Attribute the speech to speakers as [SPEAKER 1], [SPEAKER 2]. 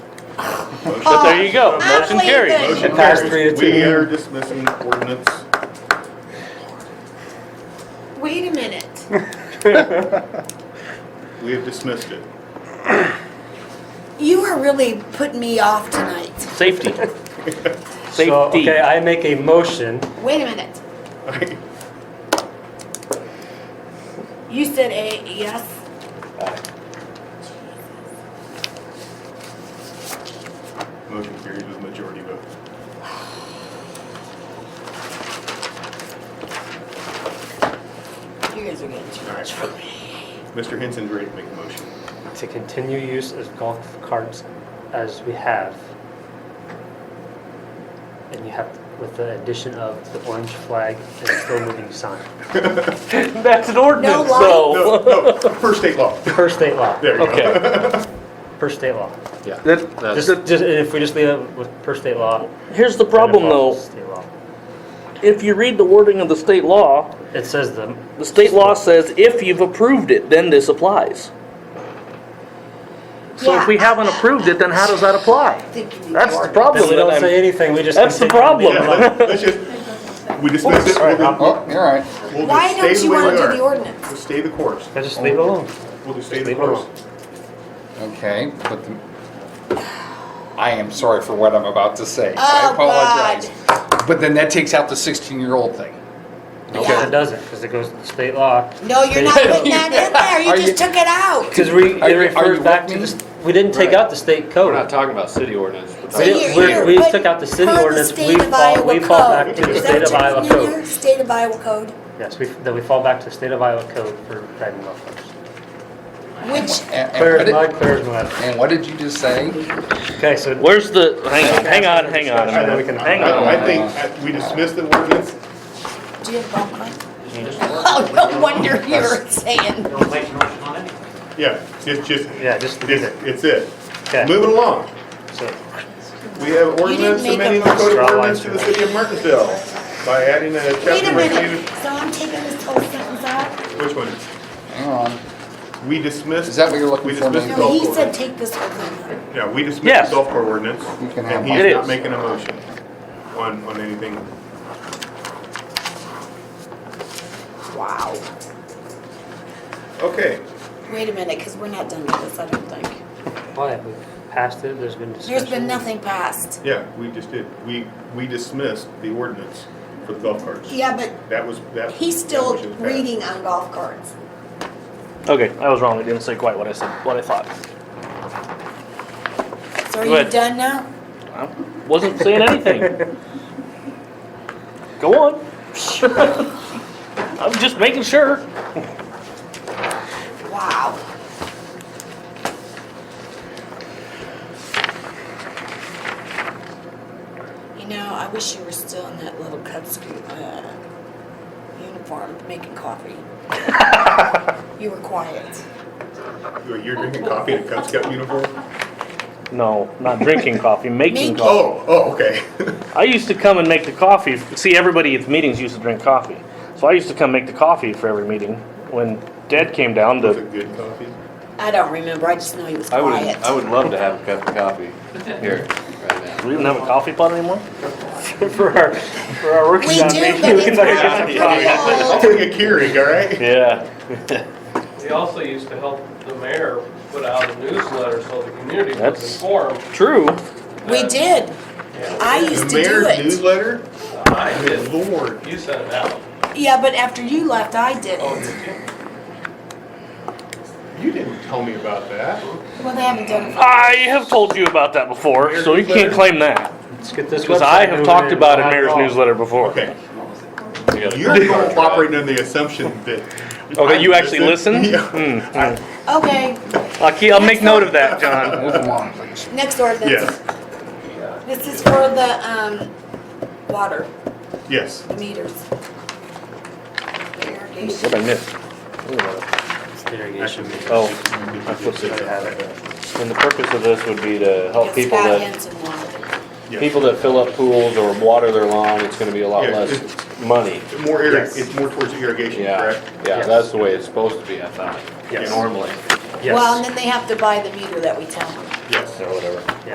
[SPEAKER 1] Oh.
[SPEAKER 2] So there you go,
[SPEAKER 1] I
[SPEAKER 2] motion
[SPEAKER 1] believe that-
[SPEAKER 2] carries.
[SPEAKER 3] Motion
[SPEAKER 4] It passed
[SPEAKER 3] carries.
[SPEAKER 4] three to
[SPEAKER 3] We
[SPEAKER 4] two.
[SPEAKER 3] are dismissing ordinance.
[SPEAKER 1] Wait a minute.
[SPEAKER 3] We have dismissed it.
[SPEAKER 1] You are really putting me off tonight.
[SPEAKER 2] Safety.
[SPEAKER 4] So,
[SPEAKER 2] Safety.
[SPEAKER 4] okay, I make a motion.
[SPEAKER 1] Wait a minute.
[SPEAKER 3] I-
[SPEAKER 1] You said a yes?
[SPEAKER 3] Motion carries with majority vote.
[SPEAKER 1] You guys are getting too much for me.
[SPEAKER 3] Mr. Henson's ready to make a motion.
[SPEAKER 4] to continue use of golf carts as we have. And you have, with the addition of the orange flag and slow moving sign.
[SPEAKER 2] That's an ordinance
[SPEAKER 1] light.
[SPEAKER 3] No,
[SPEAKER 2] though.
[SPEAKER 3] no, per state law.
[SPEAKER 4] Per state law,
[SPEAKER 3] There you go.
[SPEAKER 2] Okay,
[SPEAKER 4] per state law.
[SPEAKER 5] That,
[SPEAKER 4] Just,
[SPEAKER 5] that-
[SPEAKER 4] just, and if we just leave it with per state law. then
[SPEAKER 2] here's the
[SPEAKER 4] it
[SPEAKER 2] problem though.
[SPEAKER 4] follows state law.
[SPEAKER 2] If you read the wording of the state law,
[SPEAKER 4] It says the,
[SPEAKER 2] the state law says if you've approved it, then this applies. So if we
[SPEAKER 1] Yeah.
[SPEAKER 2] haven't approved it, then how does that apply?
[SPEAKER 1] I think you need
[SPEAKER 2] That's
[SPEAKER 1] to
[SPEAKER 2] the
[SPEAKER 1] order.
[SPEAKER 4] then
[SPEAKER 2] problem
[SPEAKER 4] we
[SPEAKER 2] that
[SPEAKER 4] don't
[SPEAKER 2] I'm-
[SPEAKER 4] say anything, we just.
[SPEAKER 2] That's the
[SPEAKER 4] continue.
[SPEAKER 2] problem.
[SPEAKER 3] Yeah, let's- let's just, we dismiss it. We'll do-
[SPEAKER 5] oh, you're all right.
[SPEAKER 3] we'll
[SPEAKER 1] Why
[SPEAKER 3] just stay
[SPEAKER 1] don't
[SPEAKER 3] the
[SPEAKER 1] you
[SPEAKER 3] way we
[SPEAKER 1] want to do
[SPEAKER 3] are.
[SPEAKER 1] the ordinance?
[SPEAKER 3] We'll stay the course.
[SPEAKER 4] I just leave it alone.
[SPEAKER 3] We'll just stay
[SPEAKER 4] Just
[SPEAKER 3] the
[SPEAKER 4] leave it
[SPEAKER 3] course.
[SPEAKER 4] alone.
[SPEAKER 5] Okay, but the, I am sorry for what I'm about to say.
[SPEAKER 1] Oh,
[SPEAKER 5] I apologize. But then that takes out the 16-year-old thing.
[SPEAKER 4] Because it doesn't, because it goes to state law.
[SPEAKER 1] No, you're not putting that in there.
[SPEAKER 5] Are
[SPEAKER 1] You
[SPEAKER 5] you-
[SPEAKER 1] just took it out.
[SPEAKER 4] Because we,
[SPEAKER 5] Are
[SPEAKER 4] it
[SPEAKER 5] you- are
[SPEAKER 4] refers
[SPEAKER 5] you
[SPEAKER 4] back
[SPEAKER 5] with
[SPEAKER 4] to
[SPEAKER 5] me?
[SPEAKER 4] the, st- we didn't take out the state
[SPEAKER 6] We're
[SPEAKER 4] code.
[SPEAKER 6] not talking about city ordinance. we're
[SPEAKER 1] So
[SPEAKER 6] talking-
[SPEAKER 4] We-
[SPEAKER 1] you're-
[SPEAKER 4] we-
[SPEAKER 1] you're
[SPEAKER 4] we
[SPEAKER 1] putting-
[SPEAKER 4] took out the city
[SPEAKER 1] per
[SPEAKER 4] ordinance, we
[SPEAKER 1] state of
[SPEAKER 4] fall-
[SPEAKER 1] Iowa
[SPEAKER 4] we fall
[SPEAKER 1] code.
[SPEAKER 4] back to the
[SPEAKER 1] Is that
[SPEAKER 4] state of
[SPEAKER 1] what
[SPEAKER 4] Iowa
[SPEAKER 1] you're doing
[SPEAKER 4] code.
[SPEAKER 1] here? State of Iowa code,
[SPEAKER 4] Yes, we, then we fall back to the state of Iowa code for driving golf carts.
[SPEAKER 1] which,
[SPEAKER 5] And- and
[SPEAKER 4] Clear
[SPEAKER 5] what
[SPEAKER 4] as
[SPEAKER 5] did-
[SPEAKER 4] mud, clear as mud.
[SPEAKER 5] And what did you just say?
[SPEAKER 4] Okay, so
[SPEAKER 2] Where's the, hang on, hang on, hang on a
[SPEAKER 4] I know we
[SPEAKER 2] minute.
[SPEAKER 4] can-
[SPEAKER 2] Hang on.
[SPEAKER 3] I I think I- we dismissed the ordinance.
[SPEAKER 1] do you have golf cart? Oh, no wonder you're saying.
[SPEAKER 3] Yeah, just, just.
[SPEAKER 4] Yeah, just leave it.
[SPEAKER 3] It's it.
[SPEAKER 4] Okay.
[SPEAKER 3] Moving along.
[SPEAKER 4] So,
[SPEAKER 3] We have ordinance
[SPEAKER 1] make a
[SPEAKER 3] amending the code
[SPEAKER 4] Draw
[SPEAKER 3] of ordinance
[SPEAKER 4] lines
[SPEAKER 3] to
[SPEAKER 4] through
[SPEAKER 3] the
[SPEAKER 4] it.
[SPEAKER 3] city of Martinsville by adding a
[SPEAKER 1] Wait a
[SPEAKER 3] chapter
[SPEAKER 1] minute,
[SPEAKER 3] related,
[SPEAKER 1] so I'm taking this whole sentence out?
[SPEAKER 3] which one?
[SPEAKER 5] Hang on.
[SPEAKER 3] We dismissed.
[SPEAKER 5] Is that what you're looking
[SPEAKER 3] we
[SPEAKER 5] for,
[SPEAKER 3] dismissed
[SPEAKER 5] Nate?
[SPEAKER 3] the
[SPEAKER 1] No, he
[SPEAKER 3] golf
[SPEAKER 1] said
[SPEAKER 3] course.
[SPEAKER 1] take this whole thing out.
[SPEAKER 3] Yeah, we dismissed
[SPEAKER 2] Yes.
[SPEAKER 3] the golf court ordinance.
[SPEAKER 5] You can have
[SPEAKER 3] And
[SPEAKER 5] mine.
[SPEAKER 3] he's
[SPEAKER 2] It
[SPEAKER 3] not
[SPEAKER 2] is.
[SPEAKER 3] making a motion on, on anything.
[SPEAKER 1] Wow.
[SPEAKER 3] Okay,
[SPEAKER 1] Wait a minute, because we're not done with this, I don't think.
[SPEAKER 4] why, we passed it, there's been discussion.
[SPEAKER 1] There's been nothing passed.
[SPEAKER 3] yeah, we just did. We, we dismissed the ordinance for the golf carts.
[SPEAKER 1] Yeah, but
[SPEAKER 3] That was, that.
[SPEAKER 1] he's still
[SPEAKER 3] that motion passed.
[SPEAKER 1] reading on golf carts.
[SPEAKER 2] Okay, I was wrong, I didn't say quite what I said, what I thought.
[SPEAKER 1] So are
[SPEAKER 2] Go
[SPEAKER 1] you
[SPEAKER 2] ahead.
[SPEAKER 1] done now?
[SPEAKER 2] I wasn't saying anything. Go on. I'm just making sure.
[SPEAKER 1] Wow. You know, I wish you were still in that little Cub Scout uh, uniform making coffee. you were quiet.
[SPEAKER 3] You're you're drinking coffee in a Cub Scout uniform?
[SPEAKER 2] No, not drinking coffee, making
[SPEAKER 1] Making.
[SPEAKER 2] coffee.
[SPEAKER 3] Oh, oh, okay.
[SPEAKER 2] I used to come and make the coffee. See, everybody at the meetings used to drink coffee. So I used to come make the coffee for every meeting. When Dad came down,
[SPEAKER 3] Was
[SPEAKER 2] the,
[SPEAKER 3] it good coffee?
[SPEAKER 1] I don't remember. I just know he was
[SPEAKER 6] I would,
[SPEAKER 1] quiet.
[SPEAKER 6] I would love to have a cup of coffee here, right now.
[SPEAKER 2] we didn't have a coffee pot anymore?
[SPEAKER 4] For our, for our working
[SPEAKER 1] We
[SPEAKER 4] on
[SPEAKER 1] do,
[SPEAKER 4] making-
[SPEAKER 1] but
[SPEAKER 4] we
[SPEAKER 1] it's
[SPEAKER 4] might
[SPEAKER 1] not
[SPEAKER 4] have
[SPEAKER 1] good.
[SPEAKER 4] to talk.
[SPEAKER 3] I'll bring a Keurig, all right?
[SPEAKER 2] Yeah.
[SPEAKER 7] We also used to help the mayor put out a newsletter so the community was
[SPEAKER 2] That's-
[SPEAKER 7] informed.
[SPEAKER 2] True.
[SPEAKER 1] we did. I used
[SPEAKER 3] The
[SPEAKER 1] to do
[SPEAKER 3] mayor's
[SPEAKER 1] it.
[SPEAKER 3] newsletter?
[SPEAKER 7] I
[SPEAKER 3] Good
[SPEAKER 7] did,
[SPEAKER 3] lord.
[SPEAKER 7] you sent it out.
[SPEAKER 1] Yeah, but after you left, I did.
[SPEAKER 7] Oh, did you?
[SPEAKER 3] You didn't tell me about that.
[SPEAKER 1] Well, they haven't done it. For-
[SPEAKER 2] I have told you about that before, so you can't claim that.
[SPEAKER 4] Let's get this
[SPEAKER 2] Because I
[SPEAKER 4] website
[SPEAKER 2] have
[SPEAKER 4] moving
[SPEAKER 2] talked
[SPEAKER 4] and
[SPEAKER 2] about a
[SPEAKER 4] not
[SPEAKER 2] mayor's
[SPEAKER 4] golf.
[SPEAKER 2] newsletter before.
[SPEAKER 3] Oh. Okay,
[SPEAKER 6] We got a
[SPEAKER 3] you're
[SPEAKER 6] contract.
[SPEAKER 3] operating on the assumption that.
[SPEAKER 2] Okay, Oh, you actually listen? Hmm.
[SPEAKER 3] Yeah.
[SPEAKER 1] okay,
[SPEAKER 2] I'll, keep, I'll make note of that, John.
[SPEAKER 5] Move along, please.
[SPEAKER 1] next ordinance.
[SPEAKER 3] Yes,
[SPEAKER 1] This is for the um, water.
[SPEAKER 3] yes.
[SPEAKER 1] the meters. The irrigation.
[SPEAKER 2] What I missed?
[SPEAKER 4] It's the irrigation meter.
[SPEAKER 2] Oh.
[SPEAKER 4] I flipped it, I have it.
[SPEAKER 6] And the purpose of this would be to help
[SPEAKER 1] It's
[SPEAKER 6] people
[SPEAKER 1] got
[SPEAKER 6] that,
[SPEAKER 1] hints and water.
[SPEAKER 3] Yeah.
[SPEAKER 6] people that fill up pools or water their lawn, it's gonna be a lot
[SPEAKER 3] Yeah,
[SPEAKER 6] less
[SPEAKER 3] it's-
[SPEAKER 6] money.
[SPEAKER 3] More, irri-
[SPEAKER 4] Yes.
[SPEAKER 3] it's more towards irrigation,
[SPEAKER 6] Yeah,
[SPEAKER 3] correct?
[SPEAKER 6] yeah,
[SPEAKER 4] Yes.
[SPEAKER 6] that's the way it's supposed to be, I thought,
[SPEAKER 4] Yes.
[SPEAKER 6] normally,
[SPEAKER 1] Well, and
[SPEAKER 4] Yes,
[SPEAKER 1] then they have to buy the meter that we tell them.
[SPEAKER 3] Yes.
[SPEAKER 6] or whatever.